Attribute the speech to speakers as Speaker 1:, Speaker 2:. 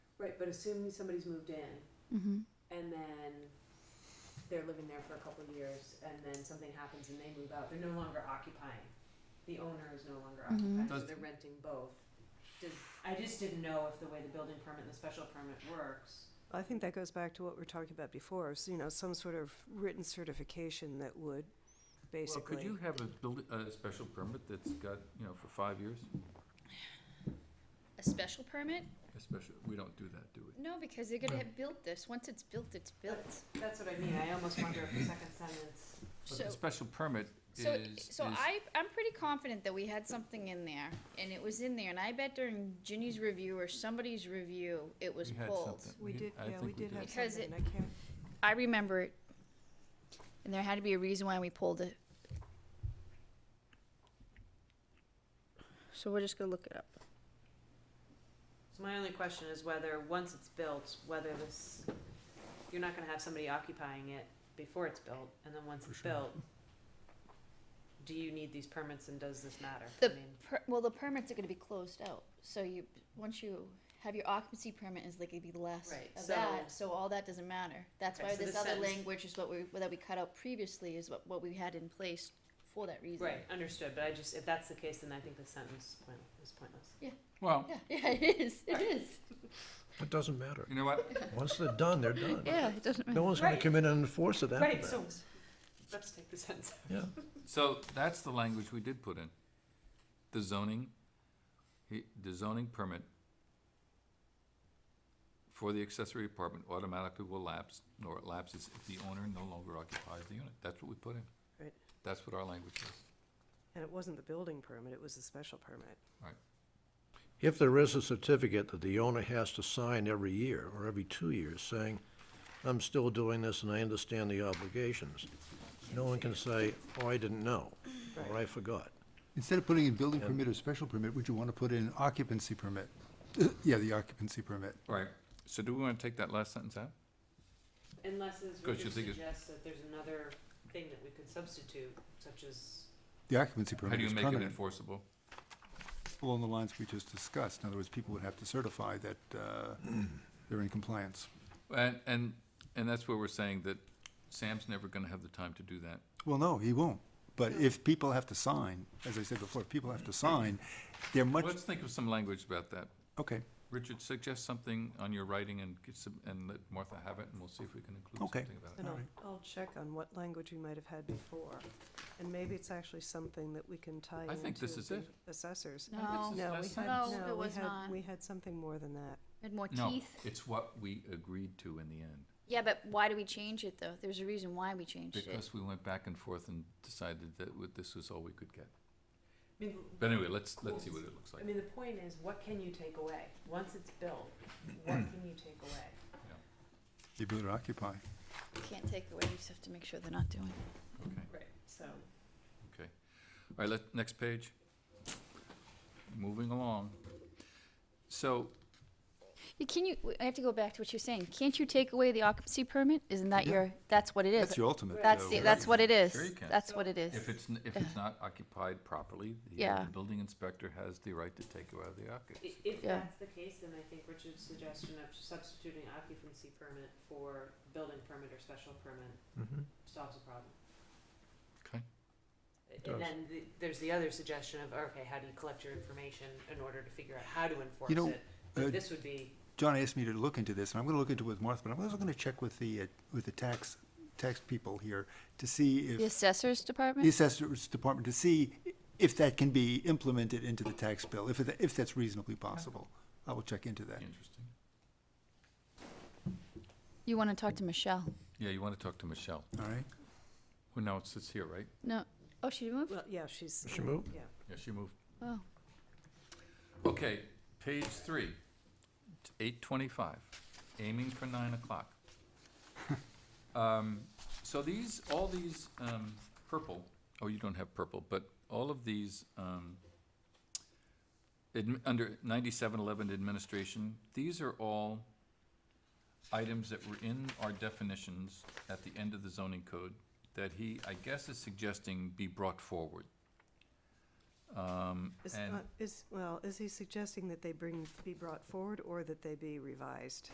Speaker 1: Right, but assuming somebody's moved in
Speaker 2: Mm-hmm.
Speaker 1: and then they're living there for a couple of years and then something happens and they move out, they're no longer occupying. The owner is no longer
Speaker 2: Mhm.
Speaker 1: occupying, so
Speaker 3: Does-
Speaker 1: they're renting both. Does, I just didn't know if the way the building permit and the special permit works.
Speaker 4: I think that goes back to what we were talking about before, is, you know, some sort of written certification that would
Speaker 3: Well,
Speaker 4: basically.
Speaker 3: could you have a building, a special permit that's got, you know, for five years?
Speaker 2: A special permit?
Speaker 3: Especially, we don't do that, do we?
Speaker 2: No, because they're gonna have built this. Once it's built, it's built.
Speaker 1: That's what I mean, I almost wonder if the second sentence.
Speaker 2: So,
Speaker 3: But the special permit is,
Speaker 2: so,
Speaker 3: is,
Speaker 2: so I, I'm pretty confident that we had something in there, and it was in there, and I bet during Ginny's review or somebody's review, it was
Speaker 3: we had
Speaker 2: pulled.
Speaker 3: something.
Speaker 4: We did,
Speaker 3: I
Speaker 4: yeah,
Speaker 3: think
Speaker 4: we did have
Speaker 2: Because
Speaker 4: something,
Speaker 2: it-
Speaker 4: I can't,
Speaker 2: I remember it, and there had to be a reason why we pulled it. So we're just gonna look it up.
Speaker 1: So my only question is whether, once it's built, whether this, you're not gonna have somebody occupying it before it's built, and then once it's built, do you need these permits and does this matter? I
Speaker 2: The
Speaker 1: mean,
Speaker 2: per, well, the permits are gonna be closed out, so you, once you have your occupancy permit is like the last
Speaker 1: Right,
Speaker 2: of
Speaker 1: so-
Speaker 2: that, so all that doesn't matter. That's
Speaker 1: Okay,
Speaker 2: why
Speaker 1: so
Speaker 2: this
Speaker 1: this
Speaker 2: other
Speaker 1: sentence-
Speaker 2: language is what we, that we cut out previously is what, what we had in place for that reason.
Speaker 1: Right, understood, but I just, if that's the case, then I think the sentence is pointless, is pointless.
Speaker 3: Well,
Speaker 2: Yeah, yeah, it is, it is.
Speaker 5: It doesn't matter.
Speaker 3: you know what?
Speaker 5: Once they're done, they're done.
Speaker 2: Yeah, it doesn't
Speaker 5: No one's gonna
Speaker 1: Right.
Speaker 5: come in and enforce it after
Speaker 1: Right,
Speaker 5: that.
Speaker 1: so, let's take the sentence. out.
Speaker 5: Yeah,
Speaker 3: So that's the language we did put in. The zoning, he- the zoning permit for the accessory apartment automatically will lapse, nor it lapses if the owner no longer occupies the unit. That's what we put in.
Speaker 4: Right.
Speaker 3: That's what our language is.
Speaker 4: and it wasn't the building permit, it was the special permit.
Speaker 3: Right.
Speaker 5: if there is a certificate that the owner has to sign every year or every two years saying, I'm still doing this and I understand the obligations, no one can say, oh, I didn't know, or I forgot.
Speaker 6: Instead of putting in building permit or special permit, would you want to put in occupancy permit? Yeah, the occupancy permit.
Speaker 3: Right. So do we want to take that last sentence out?
Speaker 1: Unless as
Speaker 3: Because you
Speaker 1: Richard
Speaker 3: think it's-
Speaker 1: suggests that there's another thing that we could substitute, such as,
Speaker 6: The occupancy
Speaker 3: How
Speaker 6: permit
Speaker 3: do you
Speaker 6: is
Speaker 3: make it
Speaker 6: permanent.
Speaker 3: enforceable?
Speaker 6: Along the lines we just discussed. In other words, people would have to certify that uh, they're in compliance.
Speaker 3: And, and, and that's where we're saying that Sam's never gonna have the time to do that.
Speaker 6: Well, no, he won't. But if people have to sign, as I said before, if people have to sign, they're much,
Speaker 3: Let's think of some language about that.
Speaker 6: okay,
Speaker 3: Richard, suggest something on your writing and get some, and let Martha have it, and we'll see if we can include
Speaker 6: Okay.
Speaker 3: something about it.
Speaker 4: And I'll,
Speaker 6: Alright.
Speaker 4: I'll check on what language we might have had before, and maybe it's actually something that we can tie into
Speaker 3: I think this is
Speaker 4: the
Speaker 3: it.
Speaker 4: assessors.
Speaker 2: No,
Speaker 3: This is
Speaker 4: No, we
Speaker 3: last
Speaker 4: had,
Speaker 3: sentence.
Speaker 2: No, it
Speaker 4: no, we
Speaker 2: was
Speaker 4: had,
Speaker 2: not.
Speaker 4: we had something more than that.
Speaker 2: Had more
Speaker 3: No,
Speaker 2: teeth.
Speaker 3: it's what we agreed to in the end,
Speaker 2: Yeah, but why do we change it though? There's a reason why we changed it.
Speaker 3: because we went back and forth and decided that w- this was all we could get.
Speaker 1: I mean,
Speaker 3: But anyway, let's, let's see what it looks
Speaker 1: I
Speaker 3: like.
Speaker 1: mean, the point is, what can you take away? Once it's built, what can you take away?
Speaker 6: the ability to occupy.
Speaker 2: You can't take away, you just have to make sure they're not doing. it.
Speaker 3: Okay,
Speaker 1: Right. So,
Speaker 3: okay. All right, let, next page. Moving along. So,
Speaker 2: Yeah, Can you, I have to go back to what you're saying. Can't you take away the occupancy permit? Isn't that
Speaker 6: Yeah.
Speaker 2: your, that's what it is?
Speaker 6: That's your ultimate.
Speaker 2: That's,
Speaker 6: uh,
Speaker 2: the-
Speaker 6: right.
Speaker 2: that's what it is.
Speaker 3: Sure you can.
Speaker 2: That's what it is.
Speaker 3: if it's, n- if it's not occupied properly, the-
Speaker 2: Yeah.
Speaker 3: the building inspector has the right to take it out of the occupancy.
Speaker 1: i- if
Speaker 2: Yeah.
Speaker 1: that's the case, then I think Richard's suggestion of substituting occupancy permit for building permit or special permit
Speaker 5: Mm-hmm.
Speaker 1: solves the problem.
Speaker 3: Okay.
Speaker 1: And
Speaker 5: does.
Speaker 1: then the, there's the other suggestion of, okay, how do you collect your information in order to figure out how to enforce
Speaker 6: know,
Speaker 1: it? But
Speaker 6: uh,
Speaker 1: this would be,
Speaker 6: John asked me to look into this, and I'm going to look into it with Martha, but I'm also going to check with the, uh, with the tax, tax people here to see if.
Speaker 2: The assessors
Speaker 6: the
Speaker 2: department?
Speaker 6: assessor's department to see if that can be implemented into the tax bill, if, it- if that's reasonably possible. I will check into that.
Speaker 3: Interesting.
Speaker 2: You want to talk to Michelle?
Speaker 3: Yeah, you want to talk to Michelle,
Speaker 6: All right?
Speaker 3: who now sits here, right?
Speaker 2: No. Oh, she moved?
Speaker 4: Well, yeah, she's.
Speaker 5: She moved?
Speaker 4: Yeah.
Speaker 3: Yeah, she moved.
Speaker 2: Oh.
Speaker 3: Okay, page three, eight twenty-five, aiming for nine o'clock. Um, So these, all these um, purple, oh, you don't have purple, but all of these, um, admi- under ninety-seven eleven administration, these are all items that were in our definitions at the end of the zoning code that he, I guess, is suggesting be brought forward. Um,
Speaker 4: Is,
Speaker 3: and
Speaker 4: uh, is, well, is he suggesting that they bring, be brought forward or that they be revised?